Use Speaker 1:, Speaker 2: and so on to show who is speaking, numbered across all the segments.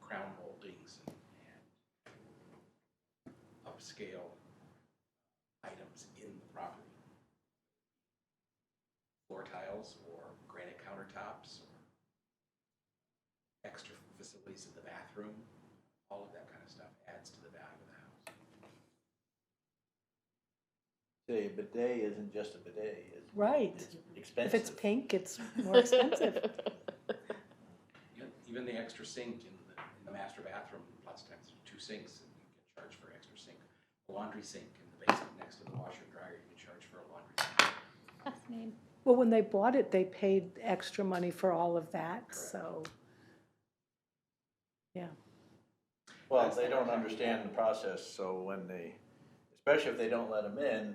Speaker 1: crown moldings and, and upscale items in the property. Floor tiles or granite countertops or extra facilities in the bathroom, all of that kind of stuff adds to the value of the house.
Speaker 2: Say, a bidet isn't just a bidet, it's.
Speaker 3: Right.
Speaker 2: it's
Speaker 3: If it's
Speaker 2: Expensive.
Speaker 3: pink, it's more expensive.
Speaker 1: Yep, even the extra sink in the, in the master bathroom, lots of times there are two sinks, and you can charge for extra sink. The Laundry sink in the basement next to the washer and dryer, you can charge for a laundry sink.
Speaker 4: Fascinating.
Speaker 3: Well, when they bought it, they paid extra money for all of that, so.
Speaker 2: Well, they don't understand the process, so when they, especially if they don't let them in, you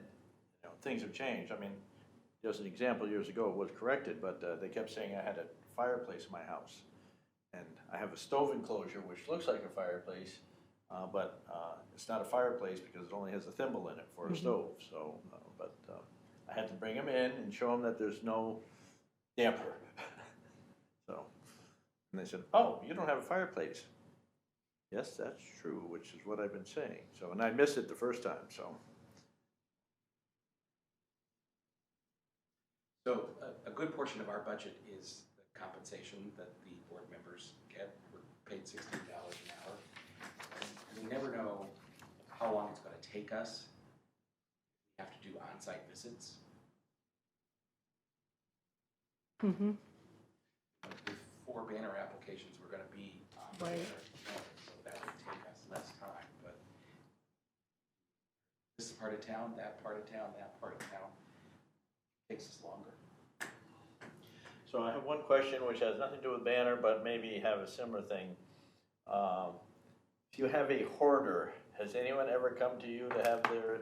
Speaker 2: know, things have changed. I mean, just an example, years ago, it was corrected, but uh, they kept saying I had a fireplace in my house. And I have a stove enclosure, which looks like a fireplace, uh, but uh, it's not a fireplace because it only has a thimble in it for a stove, so, uh, but uh, I had to bring them in and show them that there's no damper. So, and they said, oh, you don't have a fireplace. Yes, that's true, which is what I've been saying. So, and I missed it the first time, so.
Speaker 1: So a, a good portion of our budget is the compensation that the board members get. We're paid sixteen dollars an hour. And We never know how long it's gonna take us. We have to do on-site visits.
Speaker 3: hmm
Speaker 1: With four banner applications, we're gonna be on the
Speaker 3: Right.
Speaker 1: banner, so that would take us less time, but this part of town, that part of town, that part of town, takes us longer.
Speaker 2: So I have one question which has nothing to do with banner, but maybe have a similar thing. Um, If you have a hoarder, has anyone ever come to you to have their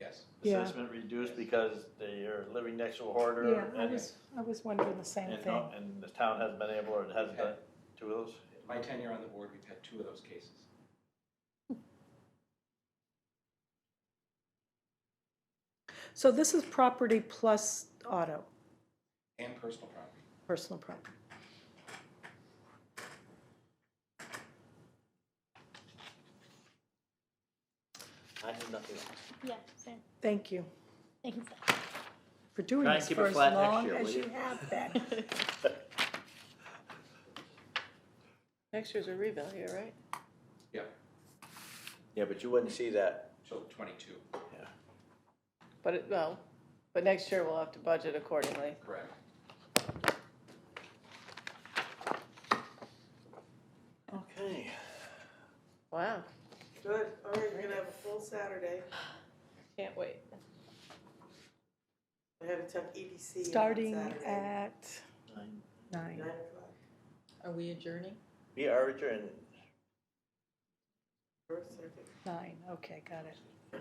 Speaker 1: Yes,
Speaker 3: Yeah.
Speaker 2: assessment reduced because they are living next to a hoarder?
Speaker 3: Yeah, I
Speaker 2: and-
Speaker 3: was, I was wondering the same
Speaker 2: and
Speaker 3: thing.
Speaker 2: not- And the town hasn't been able, or it hasn't done two of those?
Speaker 1: in my tenure on the board, we've had two of those cases.
Speaker 3: So this is property plus auto,
Speaker 1: And personal property.
Speaker 3: personal property.
Speaker 5: I have nothing else.
Speaker 4: Yeah, same.
Speaker 3: Thank you
Speaker 4: Thanks.
Speaker 3: for doing
Speaker 5: Try and
Speaker 3: this
Speaker 5: keep
Speaker 3: for
Speaker 5: it
Speaker 3: as
Speaker 5: flat next
Speaker 3: long
Speaker 5: year,
Speaker 3: as
Speaker 5: will
Speaker 3: you
Speaker 5: you?
Speaker 3: have been.
Speaker 6: Next year's a rebuild here, right?
Speaker 1: Yeah,
Speaker 2: Yeah, but you wouldn't see that.
Speaker 1: so twenty-two.
Speaker 6: But it, well, but next year we'll have to budget accordingly.
Speaker 1: Correct.
Speaker 2: Okay.
Speaker 6: Wow,
Speaker 7: Good, all right, we're gonna have a full Saturday.
Speaker 6: can't wait.
Speaker 7: I had to tuck EDC in E on
Speaker 3: Starting
Speaker 7: Saturday,
Speaker 3: at nine.
Speaker 7: Nine o'clock,
Speaker 6: Are we adjourning?
Speaker 2: Be arbitrary and
Speaker 7: first, second,
Speaker 3: Nine, okay, got it.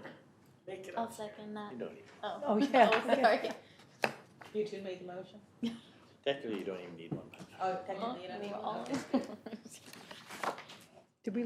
Speaker 7: make it
Speaker 4: I'll
Speaker 7: up.
Speaker 4: second that.
Speaker 2: you don't, need-
Speaker 4: Oh.
Speaker 3: Oh, yeah.
Speaker 4: Oh, sorry.
Speaker 6: You two made the motion?
Speaker 2: technically, you don't even need one.
Speaker 6: Oh,
Speaker 4: Huh? We were all-
Speaker 3: Did we